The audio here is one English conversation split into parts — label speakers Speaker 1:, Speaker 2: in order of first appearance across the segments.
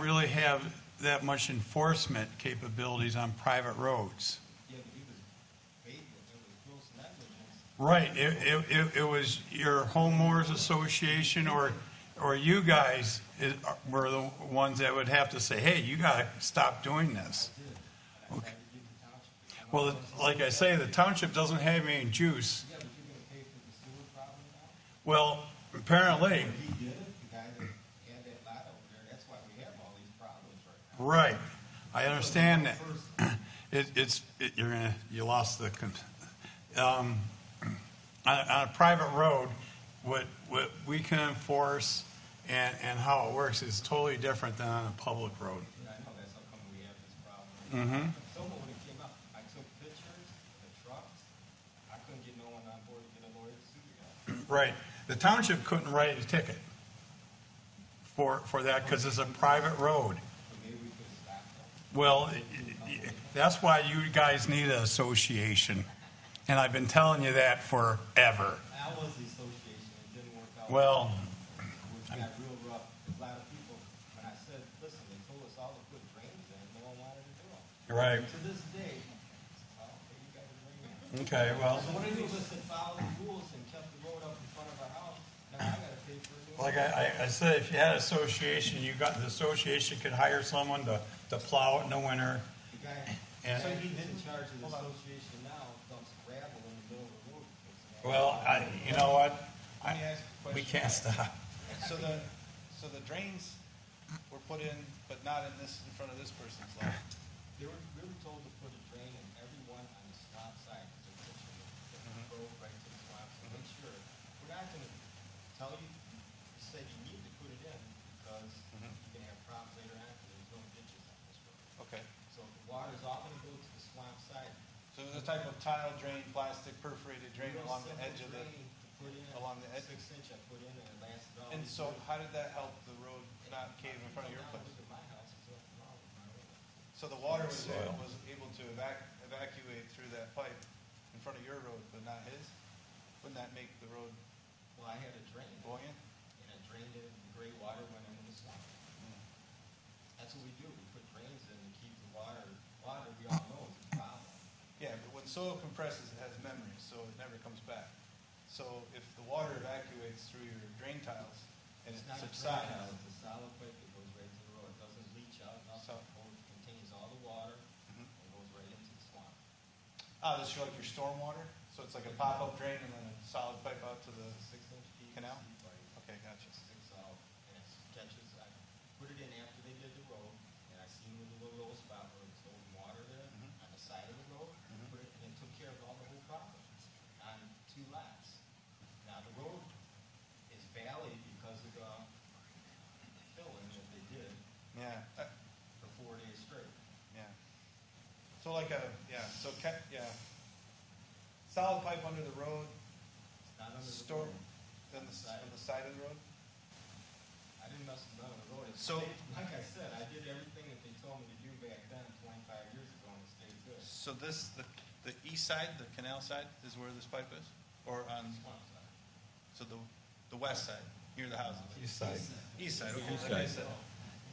Speaker 1: really have that much enforcement capabilities on private roads.
Speaker 2: Yeah, but he was baiting it, it was gross negligence.
Speaker 1: Right, it, it, it- it was your homeowners association or, or you guys is- were the ones that would have to say, hey, you gotta stop doing this. Okay. Well, like I say, the township doesn't have any juice.
Speaker 2: Yeah, but you're gonna pay for the sewer problem now?
Speaker 1: Well, apparently,
Speaker 2: He did it, the guy that had that lot over there, that's why we have all these problems right
Speaker 1: right,
Speaker 2: now.
Speaker 1: I understand that. It, it's, it, you're gonna, you lost the, con- um, on, a- on a private road, what, what we can enforce and, and how it works is totally different than on a public road.
Speaker 2: And I know that's how come we have this problem.
Speaker 1: Mm-hmm.
Speaker 2: Someone when it came up, I took pictures, the trucks, I couldn't get no one on board to get a lawyer to sue the guy.
Speaker 1: Right, the township couldn't write a ticket for, for that, because it's a private road.
Speaker 2: So maybe we could stop them.
Speaker 1: Well, i- i- that's why you guys need an association, and I've been telling you that forever.
Speaker 2: I was the association, it didn't work out.
Speaker 1: Well,
Speaker 2: Which got real rough, a lot of people, when I said, listen, they told us all to put drains in, no one wanted to do them.
Speaker 1: right,
Speaker 2: To this day, well, they got the drain in.
Speaker 1: okay, well,
Speaker 2: So what do you do is to follow the rules and kept the road up in front of our house, now I gotta pay for it.
Speaker 1: like I, I I said, if you had an association, you got, the association could hire someone to, to plow it in the winter.
Speaker 2: The guy,
Speaker 1: And-
Speaker 2: so he didn't charge the association now, dumps gravel in the middle of the road. and puts it out.
Speaker 1: Well, I, you know what?
Speaker 3: Let me
Speaker 1: I,
Speaker 3: ask you a
Speaker 1: we
Speaker 3: question.
Speaker 1: can't stop.
Speaker 3: So the, so the drains were put in, but not in this, in front of this person's lot?
Speaker 2: They were, we were told to put a drain in everyone on the swamp side, because they're pushing the the road right to the swamp, so make sure. We're not gonna tell you, you said you need to put it in, because
Speaker 3: Mhm.
Speaker 2: you can have problems later on, because there's no ditches on this road.
Speaker 3: Okay.
Speaker 2: So the water's all gonna go to the swamp side.
Speaker 3: So it was a type of tile drain, plastic perforated drain
Speaker 2: Real
Speaker 3: along the
Speaker 2: simple
Speaker 3: edge of the,
Speaker 2: drain to put in,
Speaker 3: along the edge.
Speaker 2: Six inch I put in, and it lasted all.
Speaker 3: and
Speaker 2: these
Speaker 3: so
Speaker 2: years.
Speaker 3: how did that help the road not cave in front of your
Speaker 2: Now,
Speaker 3: place?
Speaker 2: look at my house, it's all wrong with my road.
Speaker 3: So the water was, there-
Speaker 1: Soil.
Speaker 3: was able to evac, evacuate through that pipe in front of your road, but not his? Wouldn't that make the road
Speaker 2: Well, I had a drain.
Speaker 3: buoyant?
Speaker 2: and it drained it, and the gray water went into the swamp.
Speaker 3: Hmm.
Speaker 2: That's what we do, we put drains in to keep the water, water, we all know is a problem.
Speaker 3: Yeah, but when soil compresses, it has memories, so it never comes back. So if the water evacuates through your drain tiles and it
Speaker 2: It's not a drain
Speaker 3: subsides,
Speaker 2: house, it's a solid pipe that goes right to the road, it doesn't leach out, nothing,
Speaker 3: So- Mm-hmm.
Speaker 2: It holds- contains all the water, and goes right into the swamp.
Speaker 3: Oh, this is like your stormwater, so it's like a pop-up drain and then a solid pipe out to the,
Speaker 2: Six inch deep.
Speaker 3: Canal?
Speaker 2: seed pipe,
Speaker 3: okay, gotcha.
Speaker 2: It sticks out, and it catches, I put it in after they did the road, and I seen the little old spot where it's holding water there,
Speaker 3: Mhm.
Speaker 2: on the side of the road,
Speaker 3: Mm-hmm.
Speaker 2: put it, and it took care of all the whole problem, on two lots. Now, the road is valley because of the filling that they did
Speaker 3: Yeah, that-
Speaker 2: for four days straight.
Speaker 3: yeah. So like a, yeah, so ca- yeah. Solid pipe under the road,
Speaker 2: It's not under the
Speaker 3: storm,
Speaker 2: road.
Speaker 3: then the, s- on the side of the road?
Speaker 2: I didn't mess with none of the road. It's-
Speaker 3: So-
Speaker 2: Like I said, I did everything that they told me to do back then, twenty-five years ago, and it stayed good.
Speaker 3: So this, the, the east side, the canal side is where this pipe is? Or on,
Speaker 2: Swamp side.
Speaker 3: so the, the west side, near the houses?
Speaker 1: East side.
Speaker 3: East side, okay, like I said.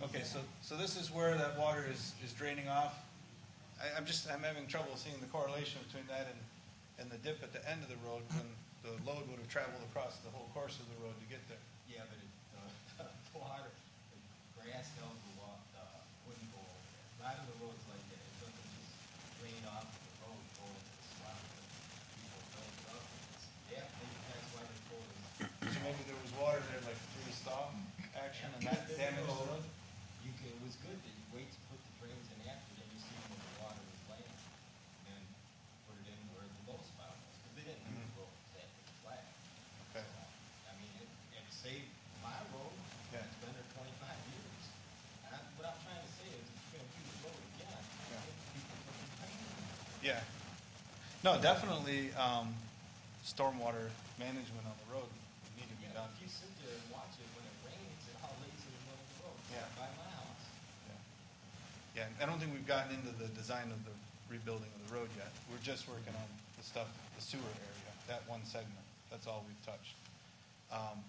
Speaker 3: Okay, so, so this is where that water is, is draining off. I, I'm just, I'm having trouble seeing the correlation between that and, and the dip at the end of the road when the load would have traveled across the whole course of the road to get there.
Speaker 2: Yeah, but it, the, the water, the grass held the wa, the wouldn't go over there. A lot of the roads like that, it doesn't just drain off the road, go into the swamp, and people fill it up. Yeah, maybe that's why they told us.
Speaker 3: So maybe there was water there like through the thaw action and that damaged the road?
Speaker 2: You can, it was good that you wait to put the drains in after, then you see where the water was laying, and then put it in where the low spot was, because they didn't use the road exactly flat.
Speaker 3: Okay.
Speaker 2: So, I mean, it, it saved my road,
Speaker 3: Yeah.
Speaker 2: it's been there twenty-five years. And I- what I'm trying to say is, if you're gonna do the road again,
Speaker 3: Yeah.
Speaker 2: get people to complain.
Speaker 3: Yeah. No, definitely, um, stormwater management on the road needed to be
Speaker 2: Yeah,
Speaker 3: done.
Speaker 2: if you sit there and watch it, when it rains, it all lays in the middle of the road,
Speaker 3: Yeah.
Speaker 2: by my house.
Speaker 3: Yeah, Yeah, I don't think we've gotten into the design of the rebuilding of the road yet. We're just working on the stuff, the sewer area, that one segment. That's all we've touched. Um,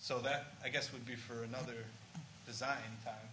Speaker 3: So that, I guess, would be for another design time.